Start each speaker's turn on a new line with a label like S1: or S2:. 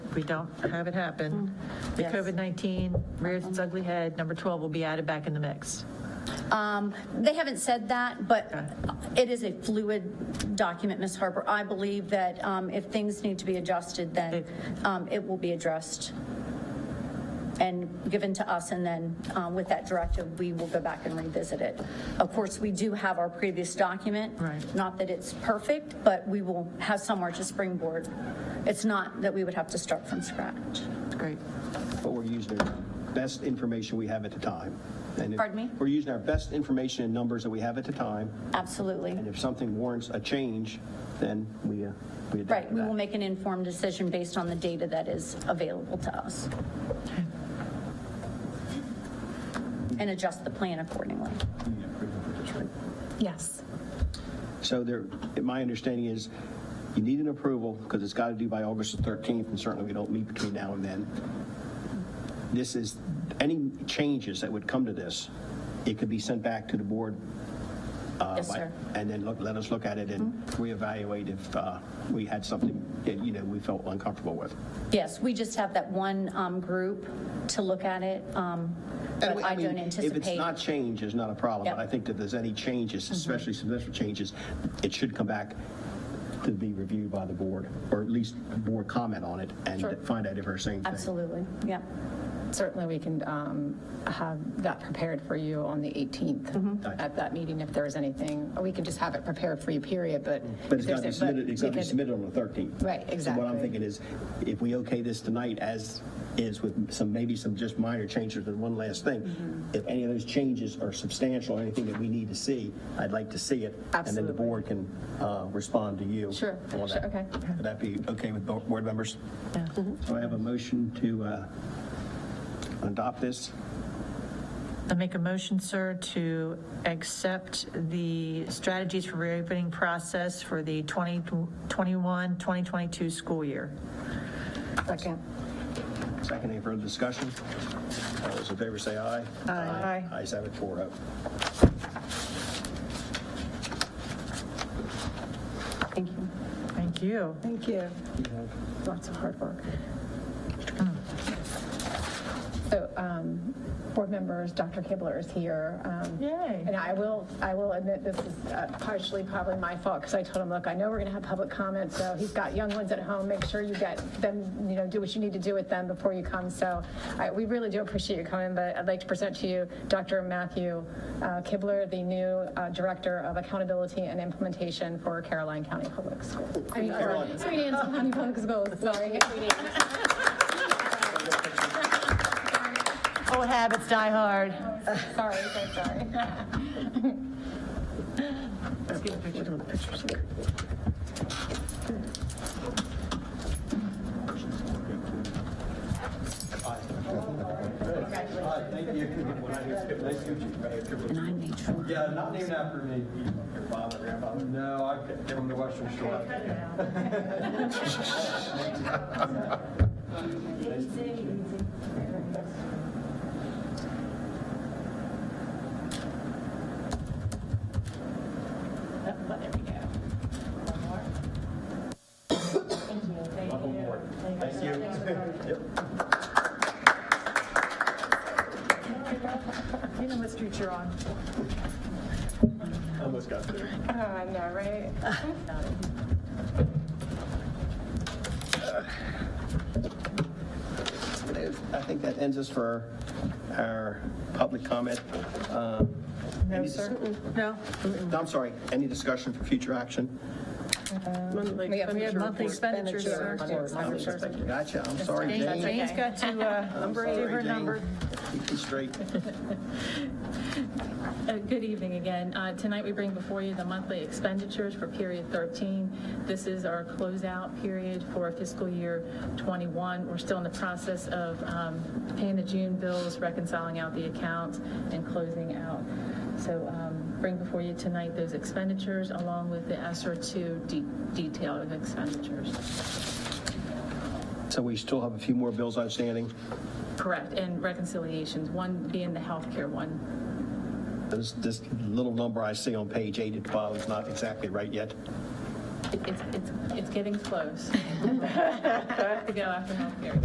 S1: if we don't have it happen, the
S2: Yes.
S1: COVID-19 rears its ugly head, number 12 will be added back in the mix.
S2: Um, They haven't said that, but it is a fluid document, Ms. Harper. I believe that um, if things need to be adjusted, then um, it will be addressed and given to us, and then um, with that directive, we will go back and revisit it. Of course, we do have our previous document.
S1: Right.
S2: Not that it's perfect, but we will have somewhere to springboard. It's not that we would have to start from scratch.
S1: Great.
S3: But we're using our best information we have at the time. And if-
S2: Pardon me?
S3: We're using our best information and numbers that we have at the time,
S2: Absolutely.
S3: and if something warrants a change, then we, uh, we adapt
S2: Right,
S3: to
S2: we
S3: that.
S2: will make an informed decision based on the data that is available to us. And adjust the plan accordingly.
S4: Yes.
S3: So there, my understanding is you need an approval because it's got to do by August the 13th, and certainly we don't meet between now and then. This is, any changes that would come to this, it could be sent back to the board. uh,
S2: Yes,
S3: by-
S2: sir. Mm-hmm.
S3: And then look, let us look at it and reevaluate if uh, we had something that, you know, we felt uncomfortable with.
S2: Yes, we just have that one um, group to look at it, um,
S3: And
S2: but
S3: we-
S2: I
S3: mean,
S2: don't
S3: If it's
S2: anticipate.
S3: not change, it's not a problem,
S2: Yep. Mm-hmm.
S3: but I think that there's any changes, especially substantial changes, it should come back to be reviewed by the board, or at least the board comment on it and find out if we're saying thing.
S2: Absolutely, yeah.
S4: Certainly, we can um, have that prepared for you on the
S3: Mm-hmm.
S4: 18th at that meeting if there's anything. Or we can just have it prepared for you, period, but.
S3: But it's
S4: if
S3: got to be
S4: there's a-
S3: submitted, it's got to be
S4: because-
S3: submitted on the 13th.
S4: Right,
S3: So what I'm
S4: exactly.
S3: thinking is, if we okay this tonight as is with some, maybe some just minor changes and one last thing,
S4: Mm-hmm.
S3: if any of those changes are substantial, or anything that we need to see, I'd like to see it. And then the
S4: Absolutely.
S3: board can uh, respond to you.
S4: Sure,
S3: on
S4: sure,
S3: that.
S4: okay. Mm-hmm.
S3: Would that be okay with bo- board members? So I have a motion to uh, adopt this.
S1: I make a motion, sir, to accept the strategies for reopening process for the 2021, 2022 school year.
S3: Second, any further discussion? All those in favor say aye.
S1: Aye.
S3: Ayes have it, oh. 4-0.
S2: Thank you.
S1: Thank you.
S4: Thank you. Lots of hard work. So, um, board members, Dr. Kibler is here. um,
S1: Yay.
S4: And I will, I will admit this is uh, partially probably my fault because I told him, look, I know we're going to have public comment, so he's got young ones at home. Make sure you get them, you know, do what you need to do with them before you come. So I- we really do appreciate you coming, but I'd like to present to you Dr. Matthew uh, Kibler, the new uh, Director of Accountability and Implementation for Caroline County Public Schools. I mean, or Queen Anne's County Public Schools, sorry.
S1: Old habits die hard.
S4: Sorry, so sorry.
S5: Hi, thank you. Nice to meet you.
S2: And I made sure.
S5: Yeah, not named after me. Your father, grandfather? No, I came from the Western Shore. Welcome aboard. Thank you. Yep.
S1: You know what street you're on.
S5: Almost got there.
S4: Oh, I know, right?
S3: I think that ends us for our public comment. Uh,
S1: No,
S3: any
S1: sir?
S3: dis-
S1: No?
S3: No, I'm sorry, any discussion for future action?
S1: We have monthly expenditures, sir.
S3: Gotcha, I'm sorry, Jane.
S1: Jane's got to uh,
S3: I'm
S1: do
S3: sorry,
S1: her
S3: Jane.
S1: number.
S3: Keep it straight.
S6: Uh, Good evening again. Uh, Tonight, we bring before you the monthly expenditures for period 13. This is our closeout period for fiscal year 21. We're still in the process of um, paying the June bills, reconciling out the accounts, and closing out. So um, bring before you tonight those expenditures along with the ESER 2 de- detail of expenditures.
S3: So we still have a few more bills outstanding.
S6: Correct, and reconciliations, one being the healthcare one.
S3: This, this little number I see on page 8 at the bottom is not exactly right yet.
S6: It's, it's, it's getting close. To go after healthcare.